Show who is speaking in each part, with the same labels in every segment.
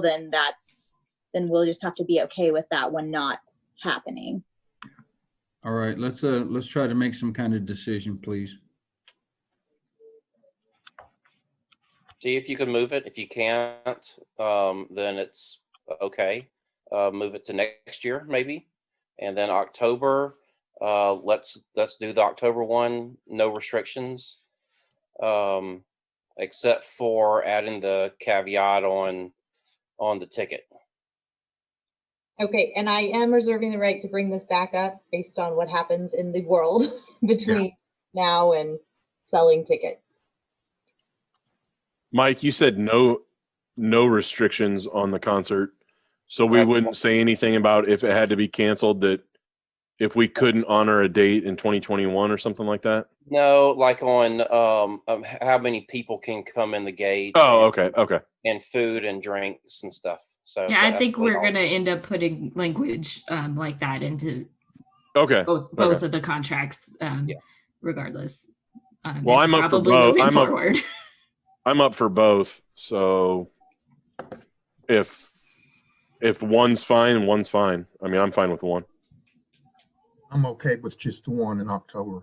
Speaker 1: then that's, then we'll just have to be okay with that one not happening.
Speaker 2: All right, let's, uh, let's try to make some kind of decision, please.
Speaker 3: See if you can move it. If you can't, um, then it's okay. Uh, move it to next year maybe. And then October, uh, let's, let's do the October one, no restrictions. Um, except for adding the caveat on, on the ticket.
Speaker 4: Okay, and I am reserving the right to bring this back up based on what happens in the world between now and selling tickets.
Speaker 5: Mike, you said no, no restrictions on the concert. So we
Speaker 3: Right.
Speaker 5: wouldn't say anything about if it had to be canceled that if we couldn't honor a date in 2021 or something like that.
Speaker 3: No, like on, um, um, h- how many people can come in the gate.
Speaker 5: Oh,
Speaker 3: and-
Speaker 5: okay. Okay.
Speaker 3: And food and drinks and stuff. So.
Speaker 6: Yeah, I
Speaker 3: that-
Speaker 6: think we're
Speaker 3: all-
Speaker 6: gonna end up putting language um, like that into
Speaker 5: Okay.
Speaker 6: both both of the contracts, um,
Speaker 3: Yeah.
Speaker 6: regardless. Um,
Speaker 5: Well,
Speaker 6: and
Speaker 5: I'm up for
Speaker 6: probably
Speaker 5: both.
Speaker 6: moving
Speaker 5: I'm up-
Speaker 6: forward.
Speaker 5: I'm up for both. So if, if one's fine, one's fine. I mean, I'm fine with one.
Speaker 7: I'm okay with just the one in October.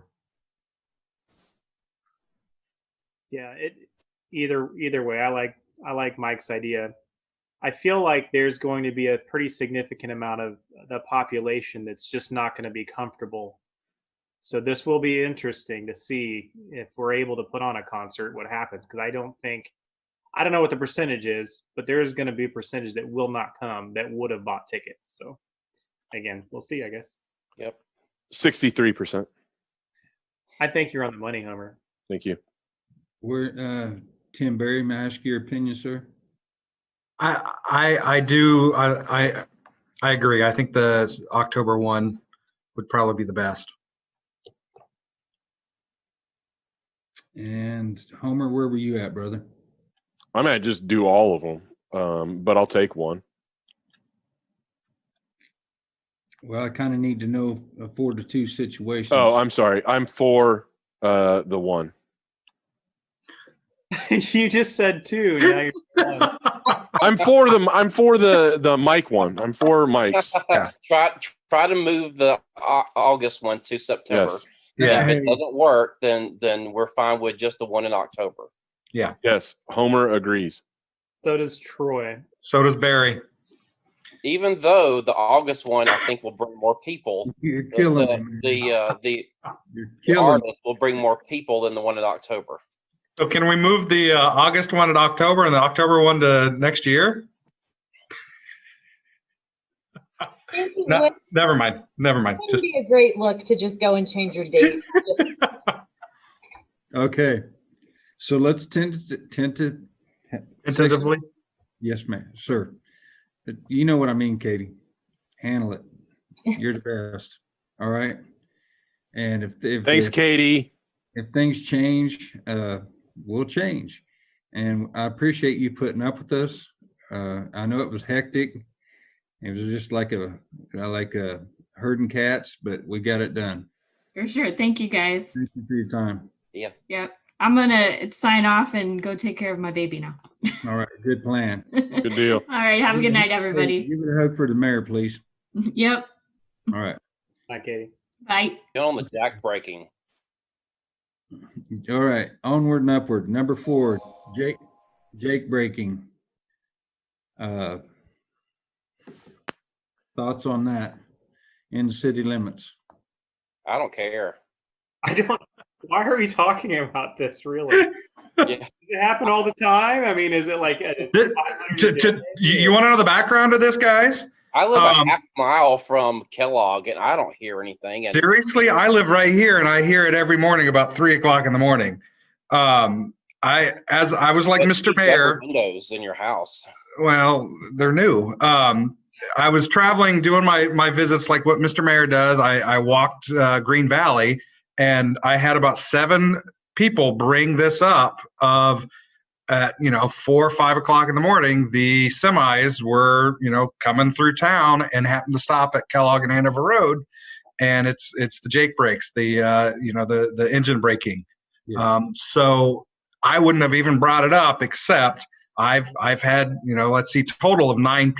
Speaker 8: Yeah, it either either way, I like I like Mike's idea. I feel like there's going to be a pretty significant amount of the population that's just not going to be comfortable. So this will be interesting to see if we're able to put on a concert, what happens because I don't think I don't know what the percentage is, but there is going to be a percentage that will not come that would have bought tickets. So again, we'll see, I guess.
Speaker 3: Yep.
Speaker 5: 63%.
Speaker 8: I think you're on the money, Homer.
Speaker 5: Thank you.
Speaker 2: Where, uh, Tim Berry, may I ask your opinion, sir?
Speaker 9: I, I, I do, I, I, I agree. I think the s- October one would probably be the best.
Speaker 2: And Homer, where were you at, brother?
Speaker 5: I might just do all of them, um, but I'll take one.
Speaker 2: Well, I kind of need to know a four to two situation.
Speaker 5: Oh, I'm sorry. I'm for uh, the one.
Speaker 8: you just said two. Now you're
Speaker 5: I'm for the I'm for the the Mike one. I'm for Mike's.
Speaker 9: Yeah.
Speaker 3: Try, try to move the Au- August one to September.
Speaker 5: Yes.
Speaker 2: Yeah.
Speaker 9: Yeah,
Speaker 3: If it doesn't work, then then we're fine with just the one in October.
Speaker 5: Yes, Homer agrees.
Speaker 8: so does Troy.
Speaker 9: so does Barry.
Speaker 3: Even though the August one, I think, will bring more people.
Speaker 2: You're
Speaker 3: The-
Speaker 2: killing me.
Speaker 3: the
Speaker 2: man.
Speaker 3: the, uh, the,
Speaker 2: You're
Speaker 3: the
Speaker 2: killing me.
Speaker 3: artist will bring more people than the one in October.
Speaker 9: So can we move the uh, August one to October and the October one to next year?
Speaker 4: It
Speaker 9: No,
Speaker 4: would
Speaker 9: never mind, never mind.
Speaker 4: wouldn't
Speaker 9: Just,
Speaker 4: be a great look to just go and change your date. Just-
Speaker 2: Okay. So let's tentative, tentative.
Speaker 9: Tentatively?
Speaker 2: Yes, ma'am, sir. But You know what I mean, Katie. Handle it. You're the best. All right. And if, if.
Speaker 5: Thanks,
Speaker 2: if-
Speaker 5: Katie.
Speaker 2: if things change, uh, we'll change. And I appreciate you putting up with us. Uh, I know it was hectic. It was just like a, uh, like a herding cats, but we got it done.
Speaker 6: For sure. Thank you guys.
Speaker 2: Thank you for your time.
Speaker 6: Yep. I'm gonna sign off and go take care of my baby now.
Speaker 2: All right, good plan.
Speaker 6: Good
Speaker 5: deal.
Speaker 6: All right. Have a good night, everybody.
Speaker 2: Give it a hug for the mayor, please.
Speaker 6: Yep.
Speaker 2: All right.
Speaker 8: Hi, Katie.
Speaker 6: Bye.
Speaker 3: Get on the jack breaking.
Speaker 2: All right, onward and upward. Number four, Jake, Jake breaking. Uh, Thoughts on that in city limits?
Speaker 3: I don't care.
Speaker 8: I don't. Why are we talking about this? Really? Does it happen all the time? I mean, is it like a,
Speaker 9: Th- ju- ju- You, you want to know the background of this, guys?
Speaker 3: I live
Speaker 9: Um,
Speaker 3: a half mile from Kellogg, and I don't hear anything. And
Speaker 9: Seriously, I live right here and I hear it every morning about three o'clock in the morning. Um, I, as I was like
Speaker 3: but you
Speaker 9: Mr.
Speaker 3: need double
Speaker 9: Mayor.
Speaker 3: windows in your house.
Speaker 9: Well, they're new. Um, I was traveling, doing my my visits like what Mr. Mayor does. I, I walked uh, Green Valley, and I had about seven people bring this up of at you know four or five o'clock in the morning. The semis were you know coming through town and happened to stop at Kellogg and Hanover Road, and it's it's the Jake brakes, the uh, you know the the engine braking.
Speaker 2: Yeah.
Speaker 9: Um, so I wouldn't have even brought it up except I've I've had you know let's see total of nine